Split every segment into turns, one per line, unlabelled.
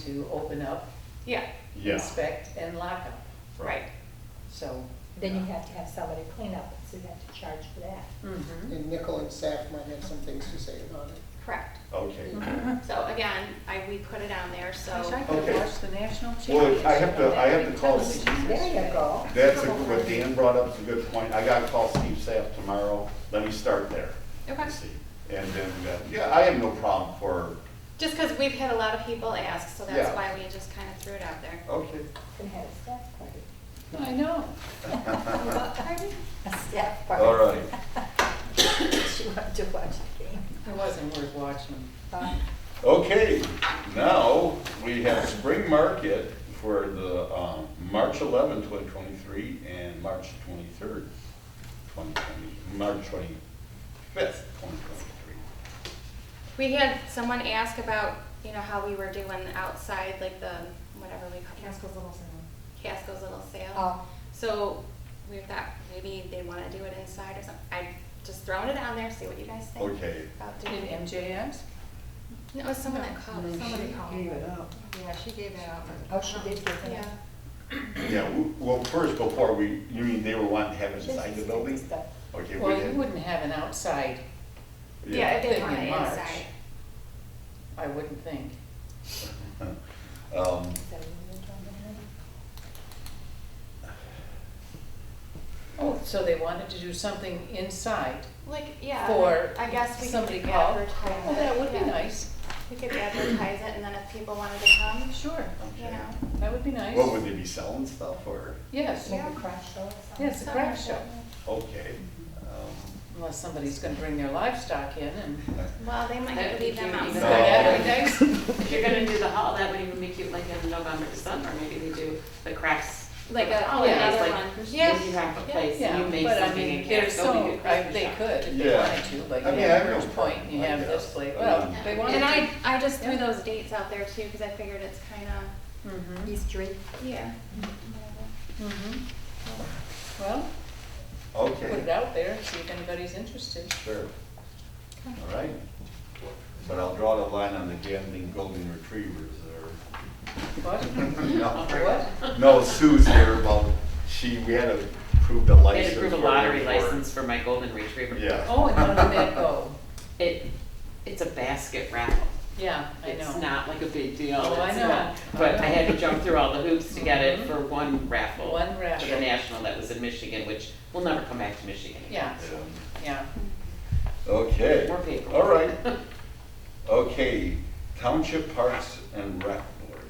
to open up,
Yeah,
Yeah,
inspect, and lock up,
right.
so.
Then you have to have somebody clean up, so you have to charge for that.
mhm.
And Nickel and Saf might have some things to say about it.
Correct.
okay.
So again, I, we put it on there, so.
Gosh, I
Okay.
could watch the national championship.
Well, I have to, I have to call,
There you go.
that's a- what Dan brought up, is a good point. I gotta call Steve Sapp tomorrow. Let me start there.
Okay.
See. And then, uh, yeah, I have no problem for,
Just because we've had a lot of people ask, so that's
Yeah.
why we just kind of threw it out there.
okay.
And have a staff party.
I know.
A staff party.
All right.
She wanted to watch the game.
It wasn't worth watching.
Uh,
Okay, now we have spring market for the, um, March eleventh, twenty twenty-three and March twenty-third, twenty twenty, March twenty-fifth, twenty twenty-three.
We had someone ask about, you know, how we were doing outside, like the, whatever we call it. Casco's Little Sale. Casco's Little Sale.
Oh.
So we thought maybe they want to do it inside or something. I just throwing it on there, see what you guys think.
Okay.
About doing
Did
it.
MJS?
No, it was someone that called.
Somebody called.
Gave it up.
Yeah, she gave it out.
Oh, she did give it.
Yeah.
Yeah, w- well, first, before we, you mean they were wanting to have it inside the building?
Stuff.
Okay, we
Well, you
did.
wouldn't have an outside,
Yeah, if they
Thing
want
in
it
March.
inside.
I wouldn't think.
Um,
Is that what you're talking
Oh, so they wanted to do something inside
Like, yeah.
for
I guess we
somebody
could
called.
advertise
Well,
it,
that would be
yeah.
nice.
We could advertise it and then if people wanted to come,
Sure,
you
okay.
know.
that would be nice.
What, would they be selling stuff or,
Yes,
about? Make a crash show or something?
yes, a craft show,
okay. um,
unless somebody's gonna bring their livestock in and.
Well, they might
That
have to
would be
leave them
cute,
outside.
even
No.
Yeah, nice.
If you're gonna do the hall, that would even make you like in November, December, maybe they do the crafts.
Like
for the
a-
holidays,
another
Oh, like,
one.
if
Yeah.
You have a
Yeah.
place, and you
Yeah,
make
but I
something
mean,
and
they're
can't go
so,
to
I-
Christmas
they
shop.
could if they
Yeah.
wanted to, like
I
you
mean, I
have
have no
First Point,
problem,
you
I
have
guess.
this place,
I
well,
mean-
they
Yeah.
wanted to.
And I, I just threw those dates out there too, because I figured it's kind of,
Mhm,
Easter egg.
yeah.
mhm. Mm-hmm. Well, put it
Okay,
out there, see if anybody's interested.
sure. All right. But I'll draw the line on the gambling golden retrievers there.
What?
No,
What?
No, Sue's here, well, she, we had to prove the
They
license.
had to prove a
for
lottery
her.
license for my golden retriever.
Yeah.
Oh, and how did that go?
It, it's a basket raffle.
Yeah, I know.
It's not like a big deal.
Oh, I
It's
know. Mm-hmm.
not- But I had to jump through all the hoops to get it for one raffle.
One
For
raffle.
the national that was in Michigan, which will never come back to Michigan. again.
Yeah,
Um,
yeah.
Okay.
More paper.
All right. Okay, Township Parks and Rec Board.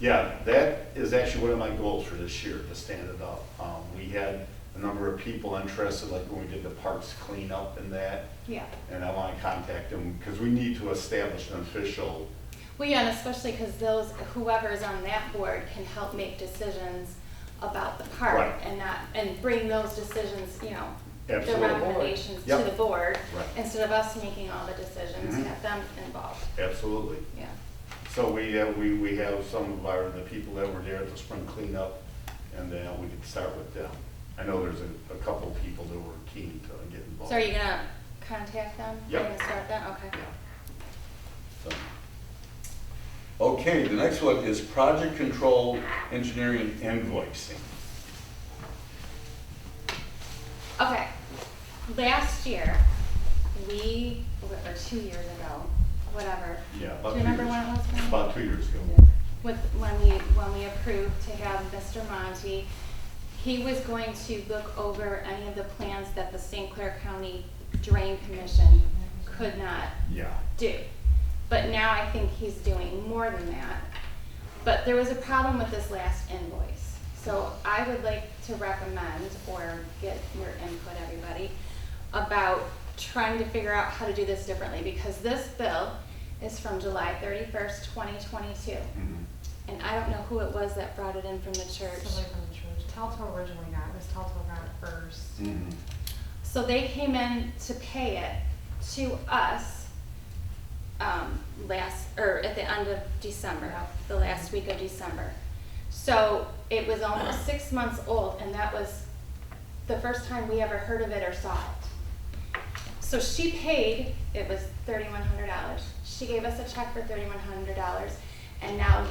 Yeah, that is actually one of my goals for this year, to stand it up. Um, we had a number of people interested, like when we did the parks cleanup and that,
Yeah.
and I wanna contact them, because we need to establish an official,
Well, yeah, and especially because those, whoever's on that board can help make decisions about the park
Right.
and not, and bring those decisions, you know, the
Absolutely.
recommendations to
Yep.
the board,
Right.
instead of us making all the decisions,
Mhm.
have them involved,
absolutely.
yeah.
So we, have- we, we have some of our, the people that were there at the spring cleanup, and then we could start with them. I know there's a, a couple people that were keen to get involved.
So are you gonna contact them? You're
Yep.
gonna start that, okay.
So. Okay, the next one is project control engineering invoicing.
Okay, last year, we, or two years ago, whatever.
Yeah.
Do
about
you
two
remember
years-
when it was? Brian?
About two years ago.
With, when we, when we approved to have Mr. Monty, he was going to look over any of the plans that the St. Clair County Drain Commission could not
Yeah,
do. But now I think he's doing more than that. But there was a problem with this last invoice. So I would like to recommend, or get your input, everybody, about trying to figure out how to do this differently, because this bill is from July thirty-first, twenty twenty-two.
mhm,
And I don't know who it was that brought it in from the church.
Somebody from the church. Talto originally got it, Miss Talto got it first.
mhm.
So they came in to pay it to us um, last, or at the end of December, the last week of December. So it was almost six months old, and that was the first time we ever heard of it or saw it. So she paid, it was thirty-one hundred dollars. She gave us a check for thirty-one hundred dollars, and now